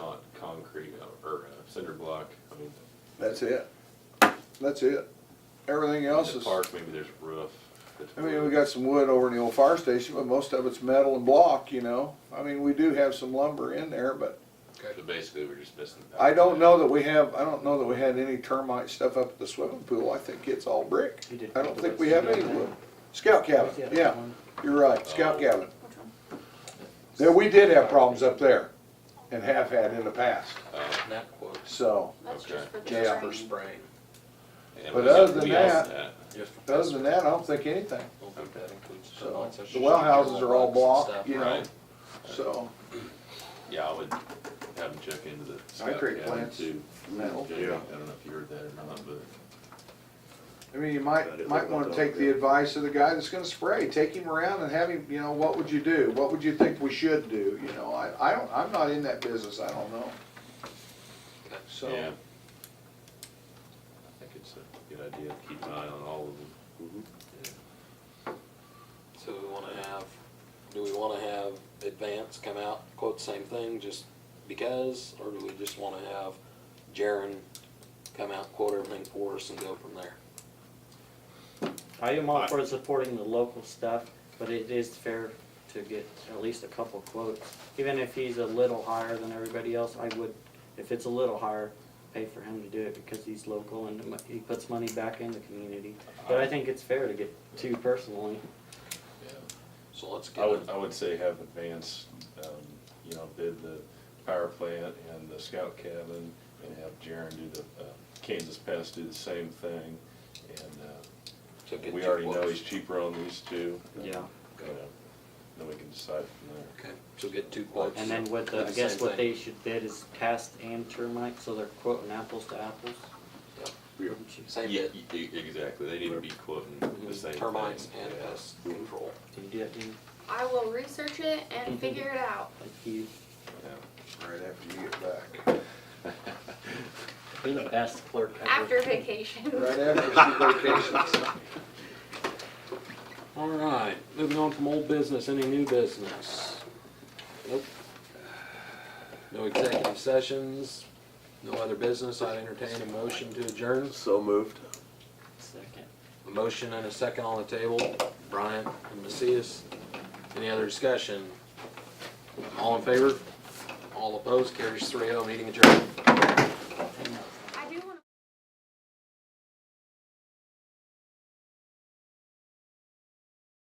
concrete uh, or uh, cinder block, I mean. That's it. That's it. Everything else the is, I Park, maybe there's a roof. that's mean, we wood. got some wood over in the old fire station, but most of it's metal and block, you know? I mean, we do have some lumber in there, but So basically, we're just missing. the I don't back. know that we have, I don't know that we had any termite stuff up at the swimming pool. I think it's all brick. You did I don't put think the we have wood any down wood. Scout cabin, Yeah, that yeah, one. you're right, scout Oh. cabin. Yeah, we did have problems up there and have had in the past, Uh, That quote's so. That's just for the Yeah. for spring. spraying. and But we- other than we asked Just for- Other than that, I don't think anything, Don't think that includes So, termites, that's the just well like houses your are all bugs and blocked, stuff. you know. Right, so. yeah, I would have them check into the. scout Concrete cabin plants, too. metal. Jamie, I don't know if you heard that or not, but. I mean, you Got might, it might looked wanna up, take the yeah. advice of the guy that's gonna spray, take him around and have him, you know, what would you do? What would you think we should do, you know, I, I don't, I'm not in that business, I don't know. So, Yeah. I think it's a good idea to keep an eye on all of them. So we wanna have, do we wanna have Advance come out, quote the same thing, just because, or do we just wanna have Jaren come out, quote everything for us and go from there? I am all for supporting the local stuff, but it is fair to get at least a couple quotes. Even if he's a little higher than everybody else, I would, if it's a little higher, pay for him to do it because he's local and mo- he puts money back in the community. But I think it's fair to get two personally. So let's I get, would, I would say have advance, um, you know, bid the power plant and the scout cabin and have Jaren do the, uh, Kansas Pest do the same thing. And, so uh, get we two already know quotes. he's cheaper on these two. Yeah. You know, Then we can decide from there. Okay, so get two quotes. And then with, the- Do I the guess same what thing. they should bid is cast and termite, so they're quoting apples to apples. Wouldn't you- Same Yeah, bid, e- e- exactly, they need to be quoting the same thing. termites and yeah. pest control. Do you do it, Dean? I will research it and figure it out. Thank you. right after you get back, You're the best clerk After vacation. right after she vacations. All right, moving on from old business, any new business? Nope. No executive sessions, no other business, I entertain a motion to adjourn. So moved. Second. A motion and a second on the table, Bryant and Macias. Any other discussion? All in favor? All opposed, carries three oh, meeting adjourned.